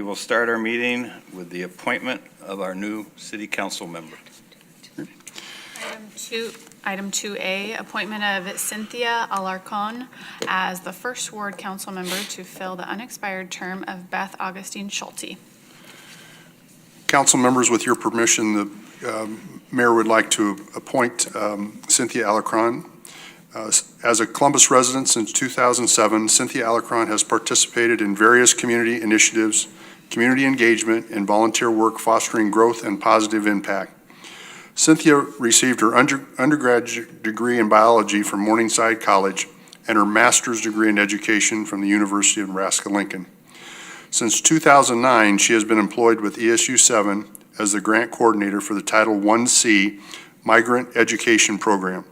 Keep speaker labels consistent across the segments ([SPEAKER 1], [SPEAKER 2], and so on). [SPEAKER 1] will start our meeting with the appointment of our new city council member.
[SPEAKER 2] Item two, item 2A, appointment of Cynthia Alarcon as the first ward council member to fill the unexpired term of Beth Augustine Schulte.
[SPEAKER 3] Council members, with your permission, the um, mayor would like to appoint um, Cynthia Alacron. Uh, As a Columbus resident since 2007, Cynthia Alacron has participated in various community initiatives, community engagement, and volunteer work fostering growth and positive impact. Cynthia received her under- undergraduate degree in biology from Morningside College and her master's degree in education from the University of Nebraska-Lincoln. Since 2009, she has been employed with E ESU 7 as the grant coordinator for the Title 1C Migrant Education Program.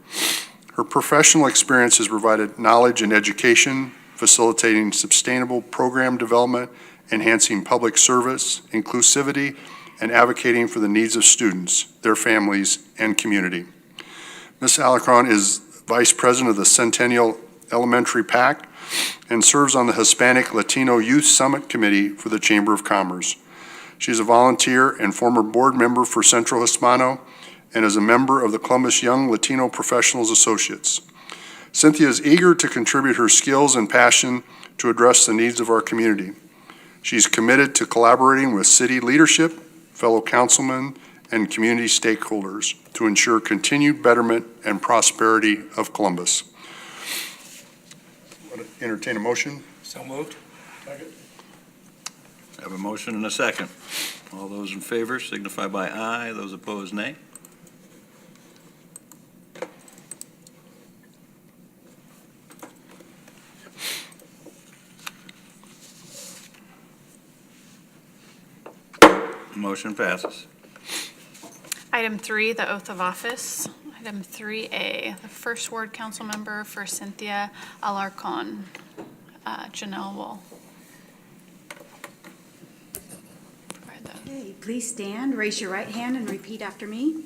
[SPEAKER 3] Her professional experience has provided knowledge and education, facilitating sustainable program development, enhancing public service, inclusivity, and advocating for the needs of students, their families, and community. Ms. Alacron is Vice President of the Centennial Elementary Pact and serves on the Hispanic Latino Youth Summit Committee for the Chamber of Commerce. She's a volunteer and former board member for Central Hispano and is a member of the Columbus Young Latino Professionals Associates. Cynthia is eager to contribute her skills and passion to address the needs of our community. She's committed to collaborating with city leadership, fellow councilmen, and community stakeholders to ensure continued betterment and prosperity of Columbus. Entertain a motion?
[SPEAKER 4] So moved.
[SPEAKER 1] I have a motion and a second. All those in favor signify by aye, those opposed nay. Motion passes.
[SPEAKER 2] Item three, the oath of office. Item 3A, the first ward council member for Cynthia Alarcon, Uh, Janelle Wall. Provide the-
[SPEAKER 5] Okay, please stand, raise your right hand, and repeat after me.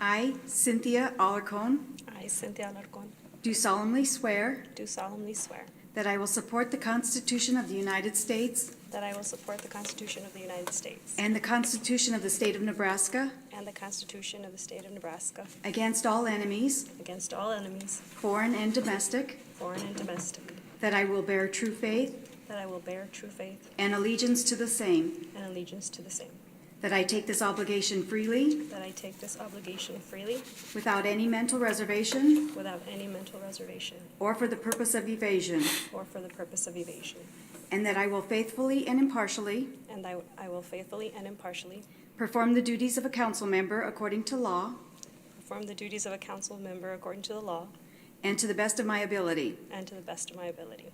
[SPEAKER 5] I, Cynthia Alarcon,
[SPEAKER 6] I, Cynthia Alarcón,
[SPEAKER 5] do solemnly swear
[SPEAKER 6] do solemnly swear
[SPEAKER 5] that I will support the Constitution of the United States
[SPEAKER 6] that I will support the Constitution of the United States
[SPEAKER 5] and the Constitution of the State of Nebraska
[SPEAKER 6] and the Constitution of the State of Nebraska
[SPEAKER 5] against all enemies,
[SPEAKER 6] against all enemies,
[SPEAKER 5] foreign and domestic,
[SPEAKER 6] foreign and domestic,
[SPEAKER 5] that I will bear true faith
[SPEAKER 6] that I will bear true faith
[SPEAKER 5] and allegiance to the same,
[SPEAKER 6] and allegiance to the same,
[SPEAKER 5] that I take this obligation freely,
[SPEAKER 6] that I take this obligation freely
[SPEAKER 5] without any mental reservation
[SPEAKER 6] without any mental reservation
[SPEAKER 5] or for the purpose of evasion,
[SPEAKER 6] or for the purpose of evasion,
[SPEAKER 5] and that I will faithfully and impartially
[SPEAKER 6] and I I will faithfully and impartially
[SPEAKER 5] Perform the duties of a council member according to law
[SPEAKER 6] perform the duties of a council member according to the law
[SPEAKER 5] and to the best of my ability.
[SPEAKER 6] and to the best of my ability.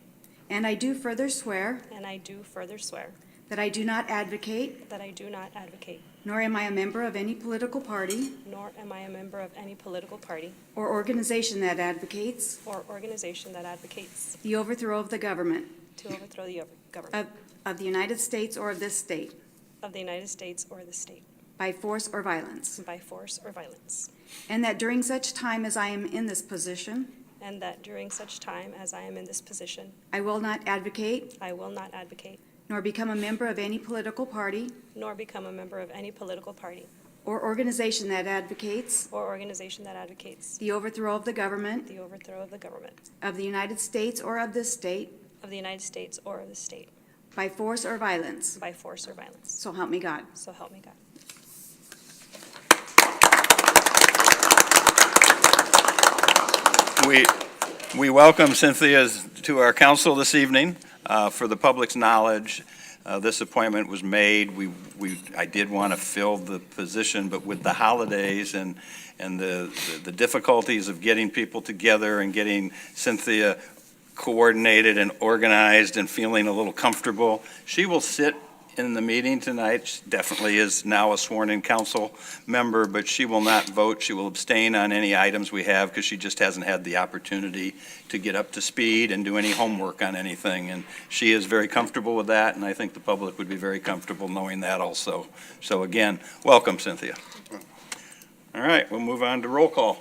[SPEAKER 5] And I do further swear
[SPEAKER 6] And I do further swear
[SPEAKER 5] that I do not advocate,
[SPEAKER 6] that I do not advocate,
[SPEAKER 5] nor am I a member of any political party
[SPEAKER 6] nor am I a member of any political party
[SPEAKER 5] or organization that advocates
[SPEAKER 6] or organization that advocates
[SPEAKER 5] the overthrow of the government
[SPEAKER 6] to overthrow the
[SPEAKER 5] of,
[SPEAKER 6] government
[SPEAKER 5] of the United States or of this state
[SPEAKER 6] of the United States or the state
[SPEAKER 5] by force or violence.
[SPEAKER 6] by force or violence,
[SPEAKER 5] And that during such time as I am in this position,
[SPEAKER 6] and that during such time as I am in this position,
[SPEAKER 5] I will not advocate
[SPEAKER 6] I will not advocate
[SPEAKER 5] nor become a member of any political party
[SPEAKER 6] nor become a member of any political party
[SPEAKER 5] or organization that advocates
[SPEAKER 6] or organization that advocates
[SPEAKER 5] the overthrow of the government
[SPEAKER 6] the overthrow of the government
[SPEAKER 5] of the United States or of this state
[SPEAKER 6] of the United States or of the state
[SPEAKER 5] By force or violence.
[SPEAKER 6] by force or violence.
[SPEAKER 5] So help me God.
[SPEAKER 6] So help me God.
[SPEAKER 1] We, we welcome Cynthia to our council this evening. Uh, For the public's knowledge, uh, this appointment was made, we, we, I did want to fill the position, but with the holidays and, and the the difficulties of getting people together and getting Cynthia coordinated and organized and feeling a little comfortable, she will sit in the meeting tonight, She definitely is now a sworn-in council member, but she will not vote. She will abstain on any items we have because she just hasn't had the opportunity to get up to speed and do any homework on anything. And she is very comfortable with that, and I think the public would be very comfortable knowing that also. So again, welcome, Cynthia. All right, we'll move on to roll call.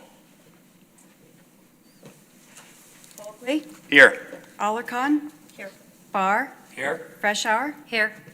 [SPEAKER 5] Bulkley.
[SPEAKER 1] Here.
[SPEAKER 5] Alarcon. Here. Barr.
[SPEAKER 4] Here?
[SPEAKER 5] Fresh Hour. Here.